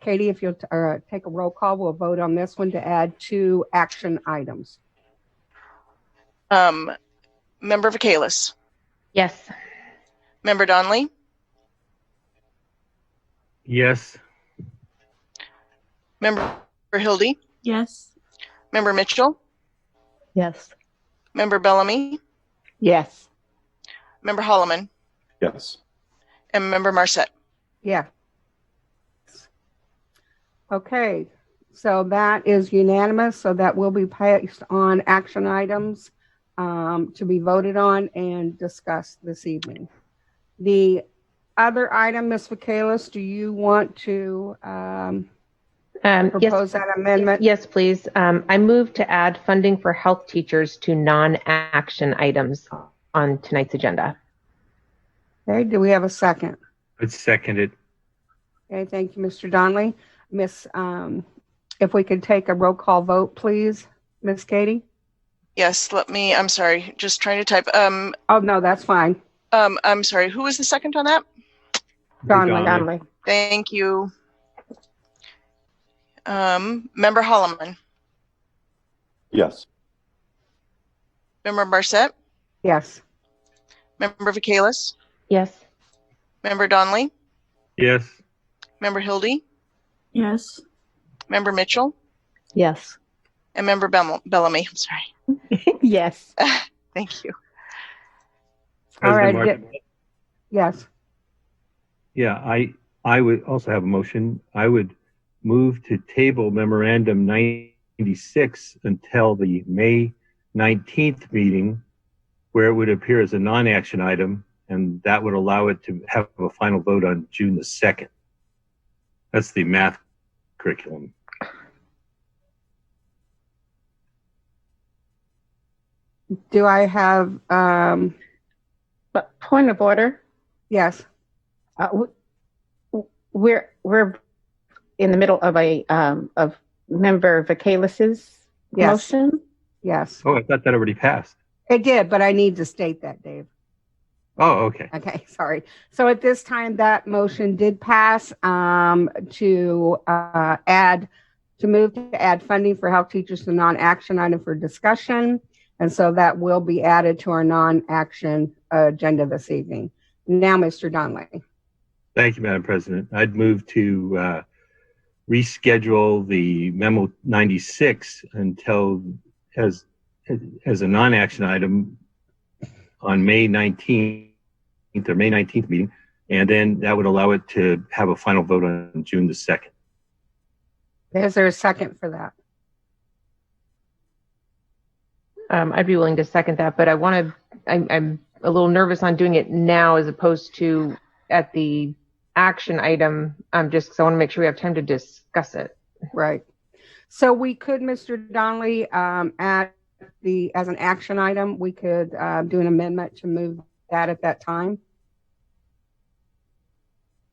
Katie, if you'll uh, take a roll call, we'll vote on this one to add two action items. Um, Member Vacalis, Yes. Member Donnelly, Yes. Member Hildy, Yes. Member Mitchell, Yes. Member Bellamy, Yes. Member Holloman, Yes. and Member Marset. Yeah. Okay, so that is unanimous, so that will be placed on action items um, to be voted on and discussed this evening. The other item, Ms. Vacalis, do you want to um, Um, yes. propose that amendment? Yes, please. Um, I move to add funding for health teachers to non-action items on tonight's agenda. Okay, do we have a second? I'd second it. Okay, thank you, Mr. Donnelly. Miss, um, if we could take a roll call vote, please, Miss Katie? Yes, let me, I'm sorry, just trying to type. Um, Oh, no, that's fine. um, I'm sorry, who was the second on that? Donnelly. Donnelly. Thank you. Um, Member Holloman, Yes. Member Marset, Yes. Member Vacalis, Yes. Member Donnelly, Yes. Member Hildy, Yes. Member Mitchell, Yes. and Member Bell- Bellamy. I'm sorry. Yes. Thank you. All President right, Martin- Yes. Yeah, I, I would also have a motion. I would move to table memorandum 96 until the May 19th meeting, where it would appear as a non-action item, and that would allow it to have a final vote on June the 2nd. That's the math curriculum. Do I have, um, But point of order, yes, uh, w- we're we're in the middle of a um, of member Vakalis's Yes. motion. yes. Oh, I thought that already passed. It did, but I need to state that, Dave. Oh, okay. Okay, sorry. So at this time, that motion did pass um, to uh, add, to move to add funding for health teachers to non-action item for discussion. And so that will be added to our non-action uh, agenda this evening. Now, Mr. Donnelly. Thank you, Madam President. I'd move to uh, reschedule the memo 96 until as as a non-action item on May 19th or May 19th meeting, and then that would allow it to have a final vote on June the 2nd. Is there a second for that? Um, I'd be willing to second that, but I want to, I'm, I'm a little nervous on doing it now as opposed to at the action item, um, just 'cause I want to make sure we have time to discuss it. Right. So we could, Mr. Donnelly, um, at the, as an action item, we could, uh, do an amendment to move that at that time.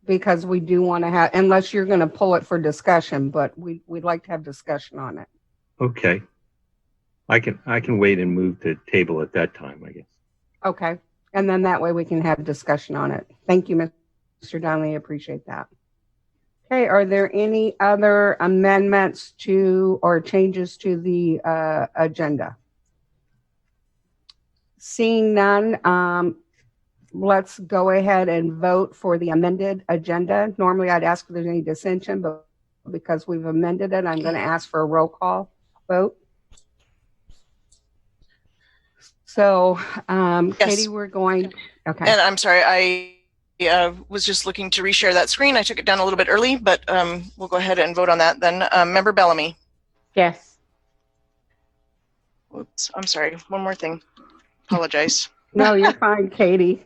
Because we do want to have, unless you're going to pull it for discussion, but we, we'd like to have discussion on it. Okay. I can I can wait and move to table at that time, I guess. Okay. And then that way we can have discussion on it. Thank you, Mr. Donnelly. I appreciate that. Okay. Are there any other amendments to or changes to the uh, agenda? Seeing none, um, let's go ahead and vote for the amended agenda. Normally I'd ask if there's any dissension, but because we've amended it, I'm going to ask for a roll call vote. So, um, Yes. Uh, Katie, we're going, okay. And I'm sorry, I uh, was just looking to reshare that screen. I took it down a little bit early, but um, we'll go ahead and vote on that then. Um, Member Bellamy. Yes. Oops, I'm sorry. One more thing. Apologize. No, you're fine, Katie.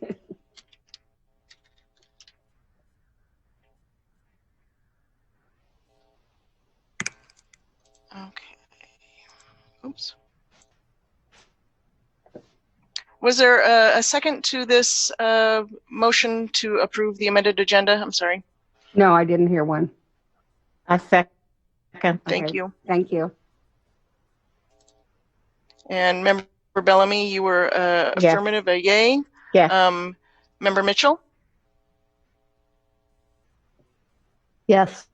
Okay. Oops. Was there a, a second to this uh, motion to approve the amended agenda? I'm sorry. No, I didn't hear one. I second. Thank Okay. you. Thank you. And Member Bellamy, you were uh, Yes. affirmative, a yay. Yes. Um, Member Mitchell, Yes.